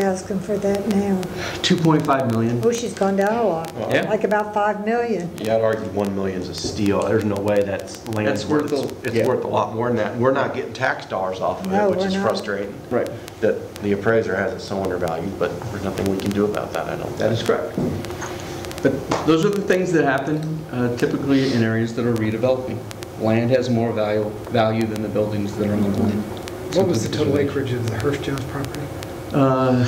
asking for that now. 2.5 million. Oh, she's gone down a lot. Yeah. Like about 5 million. Yeah, I'd argue 1 million's a steal. There's no way that's land. That's worth a- it's- yeah. It's worth a lot more than that. We're not getting tax dollars off of No, it, which we're is not. frustrating. Right. That the appraiser has it so undervalued, but there's nothing we can do about that, I don't think. That is correct. But those are the things that happen uh, typically in areas that are redeveloping. Land has more value, value than the buildings that are on the land. What was the total acreage of the Hirsch Jones property? Uh,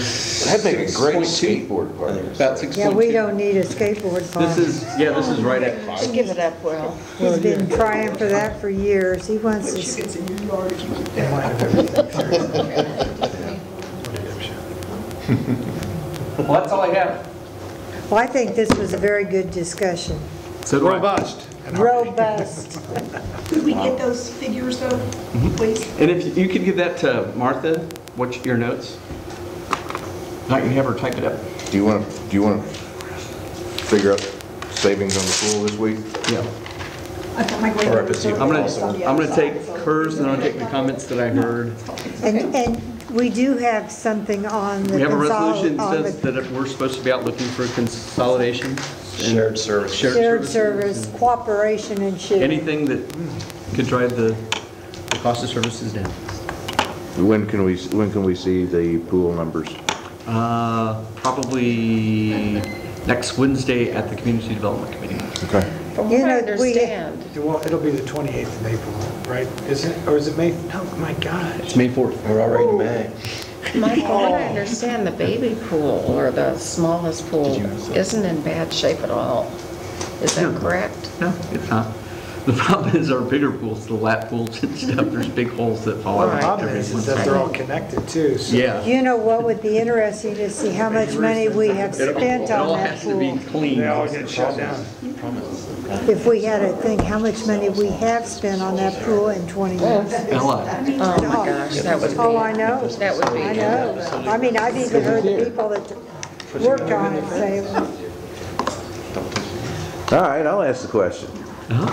That'd make a great 6.2. skateboard park. About 6.2. Yeah, we don't need a skateboard park. This is, yeah, this is right at Just five. give it up, Will. He's been trying for that for years. He wants to, It's in your yard if you keep that. Well, that's all I have. well, I think this was a very good discussion. So do I. Robust. Robust. Could we get those figures though, please? And if you could give that to Martha, what, your notes? Not you have her type it up. Do you want, to? do you want to figure out savings on the pool this week? Yeah. I've got my great. Or if it's even I'm gonna, I'm gonna take hers and I'm gonna take the comments that I heard. And, and we do have something on the. We have a resolution consol- on that says the that we're supposed to be out looking for consolidation. Shared services. Shared Shared services. service, cooperation and sharing. Anything that could drive the the cost of services down. When can we, when can we see the pool numbers? Uh, Probably next Wednesday at the Community Development Committee. Okay. From what You know, I we- understand, Well, it'll be the 28th of April, right? Is it, or is it May? No, my gosh. It's May 4th. We're already in May. Mike, from what I understand, the baby pool or the smallest pool isn't in bad shape at all. Is that Hmm. No. correct? No, it's not. The problem is our bigger pools, the lap pools and stuff, there's big holes that fall The out. Problem every is, is once in a that while. they're all connected too, so. Yeah. You know what would be interesting to see how much money we have It all- spent it all on that has to be pool. clean. They all get shut down. If we had a thing, how much money we have spent on that pool in 20 years. Ella, Oh, my gosh, that would be. Um, Oh, I know. That would be- I know. I mean, I've even heard the people that worked on it say, All right, I'll ask the question.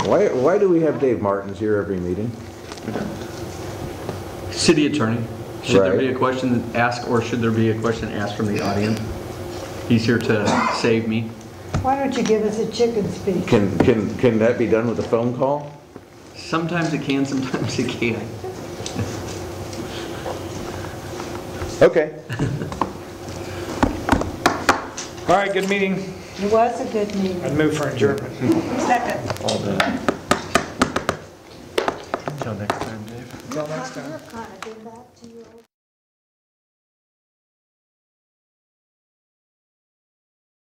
Why, why do we have Dave Martins here every meeting? city attorney, should there Right. be a question asked or should there be a question asked from the audience? He's here to save me. why don't you give us a chicken speech? Can, can, can that be done with a phone call? Sometimes it can, sometimes it can't. Okay. All right, good meeting. It was a good meeting. I'd move for adjournment. Second. All day. Till next time, Dave. I've kind of been back to you.